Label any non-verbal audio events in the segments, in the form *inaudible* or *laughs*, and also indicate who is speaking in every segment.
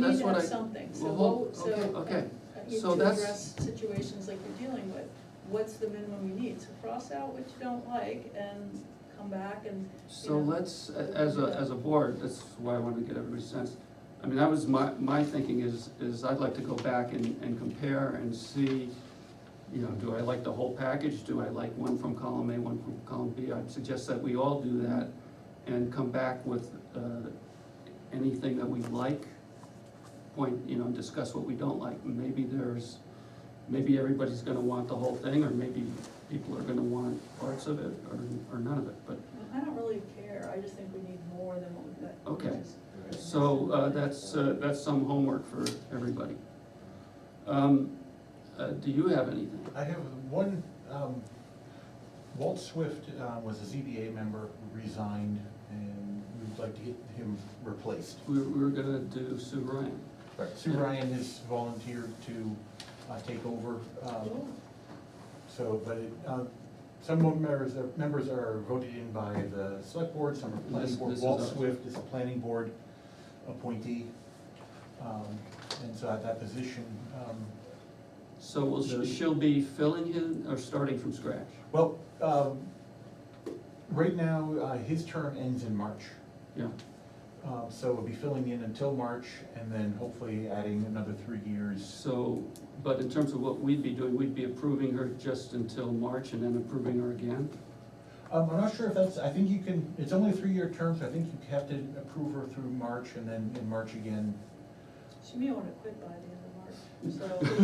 Speaker 1: We need
Speaker 2: That's
Speaker 1: to
Speaker 2: what
Speaker 1: have
Speaker 2: I-
Speaker 1: something, so
Speaker 2: Well,
Speaker 1: what, so.
Speaker 2: okay, okay.
Speaker 1: uh, you-
Speaker 2: So
Speaker 1: To
Speaker 2: that's-
Speaker 1: address situations like you're dealing with, what's the minimum you need? So cross out what you don't like and come back and,
Speaker 2: So let's, a- as a, as a board, that's why I wanted to get everybody's sense. I mean, that was my, my thinking is, is I'd like to go back and, and compare and see, you know, do I like the whole package? Do I like one from column A, one from column B? I'd suggest that we all do that and come back with, uh, anything that we like, point, you know, discuss what we don't like. Maybe there's, maybe everybody's gonna want the whole thing, or maybe people are gonna want parts of it, or, or none of it, but
Speaker 1: I don't really care, I just think we need more than what we've got.
Speaker 2: Okay.
Speaker 1: Just-
Speaker 2: So uh, that's, uh, that's some homework for everybody. Um, uh, Do you have anything?
Speaker 3: I have one, um, Walt Swift uh, was a ZBA member, resigned, and we'd like to get him replaced.
Speaker 2: We we were gonna do Sue Ryan.
Speaker 3: Sue Ryan has volunteered to uh, take over, um,
Speaker 1: Cool.
Speaker 3: so, but it, uh, some members, are- members are voted in by the select board, some are
Speaker 2: This-
Speaker 3: planning board.
Speaker 2: this is
Speaker 3: Walt
Speaker 2: ours.
Speaker 3: Swift is a planning board appointee, um, and so at that position, um,
Speaker 2: So will she- she'll be filling in or starting from scratch?
Speaker 3: well, um, right now, uh, his term ends in March.
Speaker 2: Yeah,
Speaker 3: Um, So we'll be filling in until March and then hopefully adding another three years.
Speaker 2: so, but in terms of what we'd be doing, we'd be approving her just until March and then approving her again?
Speaker 3: Um, I'm not sure if that's, I think you can, it's only a three-year term, so I think you have to approve her through March and then in March again.
Speaker 1: She may wanna quit by the end of March,
Speaker 2: *laughs*
Speaker 1: so.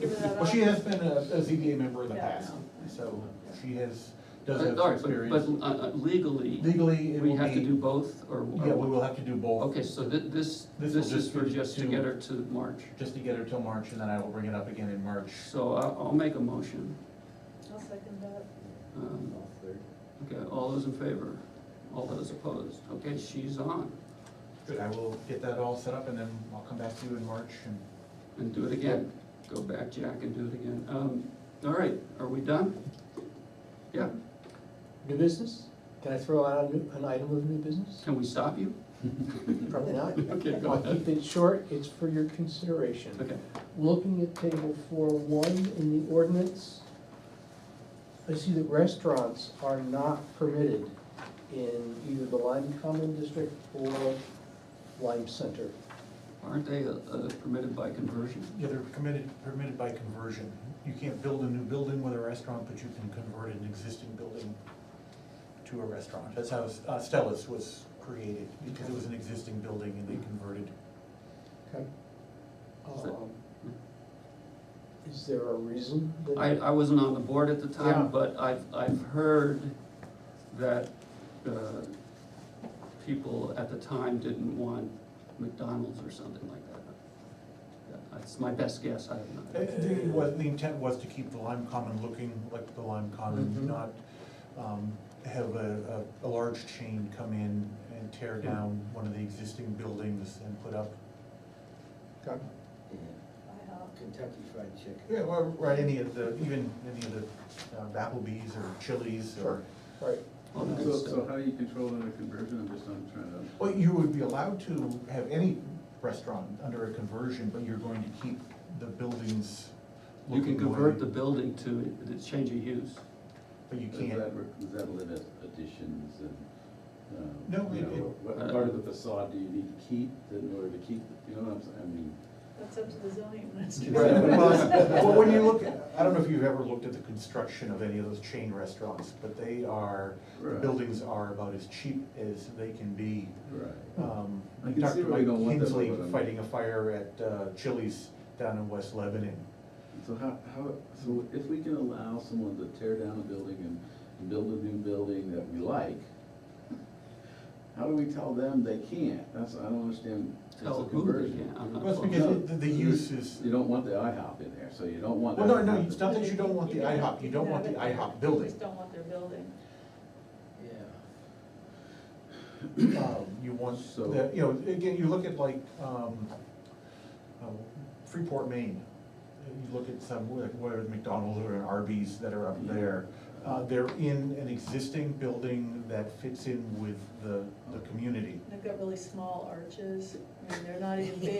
Speaker 1: give her that
Speaker 3: Well,
Speaker 1: option.
Speaker 3: she has been a, a ZBA member in the
Speaker 1: Yeah, I
Speaker 3: past,
Speaker 1: know.
Speaker 3: so she has, does
Speaker 2: Uh,
Speaker 3: have
Speaker 2: all
Speaker 3: some
Speaker 2: right, but- But
Speaker 3: experience.
Speaker 2: uh, uh, legally,
Speaker 3: Legally, it will
Speaker 2: we
Speaker 3: be.
Speaker 2: have to do both or? or
Speaker 3: Yeah,
Speaker 2: what?
Speaker 3: we will have to do both.
Speaker 2: Okay, so thi- this, this
Speaker 3: This will
Speaker 2: is
Speaker 3: just
Speaker 2: for
Speaker 3: be
Speaker 2: just to
Speaker 3: to-
Speaker 2: get her to March.
Speaker 3: Just to get her till March and then I will bring it up again in March.
Speaker 2: So I'll, I'll make a motion.
Speaker 1: I'll second that.
Speaker 2: Um, Okay, all those in favor? All those opposed? Okay, she's on,
Speaker 3: Good, I will get that all set up and then I'll come back to you in March and.
Speaker 2: and do it again. Go back, Jack, and do it again. Um, all right, are we done? Yeah,
Speaker 4: New business? Can I throw out a new- an item of new business?
Speaker 2: can we stop you?
Speaker 4: Probably not.
Speaker 2: *laughs* Okay, go
Speaker 4: I'll
Speaker 2: ahead.
Speaker 4: keep it short, it's for your consideration.
Speaker 2: Okay,
Speaker 4: Looking at table four one in the ordinance, I see that restaurants are not permitted in either the Lime Common District or Lime Center.
Speaker 2: aren't they uh, uh, permitted by conversion?
Speaker 3: Yeah, Mm-hmm. they're permitted, permitted by conversion. You can't build a new building with a restaurant, but you can convert an existing building to a restaurant. That's how uh, Stella's was created, because it was an existing building and they converted.
Speaker 4: Okay.
Speaker 2: Is that-
Speaker 4: Um, Is there a reason that?
Speaker 2: I, I wasn't on the board at the
Speaker 4: Yeah.
Speaker 2: time, but I've, I've heard that, uh, people at the time didn't want McDonald's or something like that. That's my best guess, I have
Speaker 3: Uh,
Speaker 2: not.
Speaker 3: The was- the intent was to keep the Lime Common looking like the Lime
Speaker 4: Mhm.
Speaker 3: Common, not um, have a, a a large chain come in and tear down one of the existing buildings and put up,
Speaker 4: Okay.
Speaker 1: I have.
Speaker 5: Kentucky Fried Chicken.
Speaker 3: yeah, or or any of the, even any of the uh, Applebee's or Chili's or.
Speaker 4: Sure, right.
Speaker 2: All the
Speaker 6: So,
Speaker 2: good
Speaker 6: so
Speaker 2: stuff.
Speaker 6: how do you control it under conversion, I'm just not trying to.
Speaker 3: Well, you would be allowed to have any restaurant under a conversion, but you're going to keep the buildings
Speaker 2: You can
Speaker 3: looking
Speaker 2: convert the
Speaker 3: way-
Speaker 2: building to, the change of use.
Speaker 3: But you
Speaker 6: Does
Speaker 3: can't,
Speaker 6: that re- Does that limit additions and, um,
Speaker 3: No,
Speaker 6: you
Speaker 3: it-
Speaker 6: know,
Speaker 3: it-
Speaker 6: what
Speaker 2: Uh,
Speaker 6: part of the facade do you need to keep in order to keep, you know what I'm saying, I mean.
Speaker 1: That's up to the zoning administrator.
Speaker 6: *laughs*
Speaker 1: *laughs*
Speaker 3: Right, well, well, when you look, at- I don't know if you've ever looked at the construction of any of those chain restaurants, but they are, the
Speaker 6: Right.
Speaker 3: buildings are about as cheap as they can be.
Speaker 6: Right.
Speaker 3: Um,
Speaker 6: Hmm. I can see
Speaker 3: Dr.
Speaker 6: where you don't
Speaker 3: Mike
Speaker 6: want that,
Speaker 3: Kinsley
Speaker 6: but I'm-
Speaker 3: fighting a fire at uh, Chili's down in West Lebanon.
Speaker 6: So how, how, so if we can allow someone to tear down a building and, and build a new building that we like, how do we tell them they can't? That's, I don't understand. It's a
Speaker 2: Tell who they
Speaker 6: conversion.
Speaker 2: can, I'm not.
Speaker 3: Well, it's because
Speaker 6: No,
Speaker 3: it- the- the use is-
Speaker 6: You don't want the IHOP in there, so you don't want.
Speaker 3: Well, no,
Speaker 6: that
Speaker 3: no,
Speaker 6: to
Speaker 3: it's
Speaker 6: happen.
Speaker 3: not that you don't want the
Speaker 1: can-
Speaker 3: IHOP, you don't
Speaker 1: can
Speaker 3: want
Speaker 1: have
Speaker 3: the
Speaker 1: it.
Speaker 3: IHOP
Speaker 1: You
Speaker 3: building.
Speaker 1: just don't want their building.
Speaker 5: Yeah.
Speaker 3: um, you want,
Speaker 6: So-
Speaker 3: the- you know, again, you look at like, um, um, Freeport, Maine. You look at some, like, whether it's McDonald's or an Arby's that are up there, Uh, They're in an existing building that fits in with the, the community.
Speaker 1: They've got really small arches, I mean, they're not even big.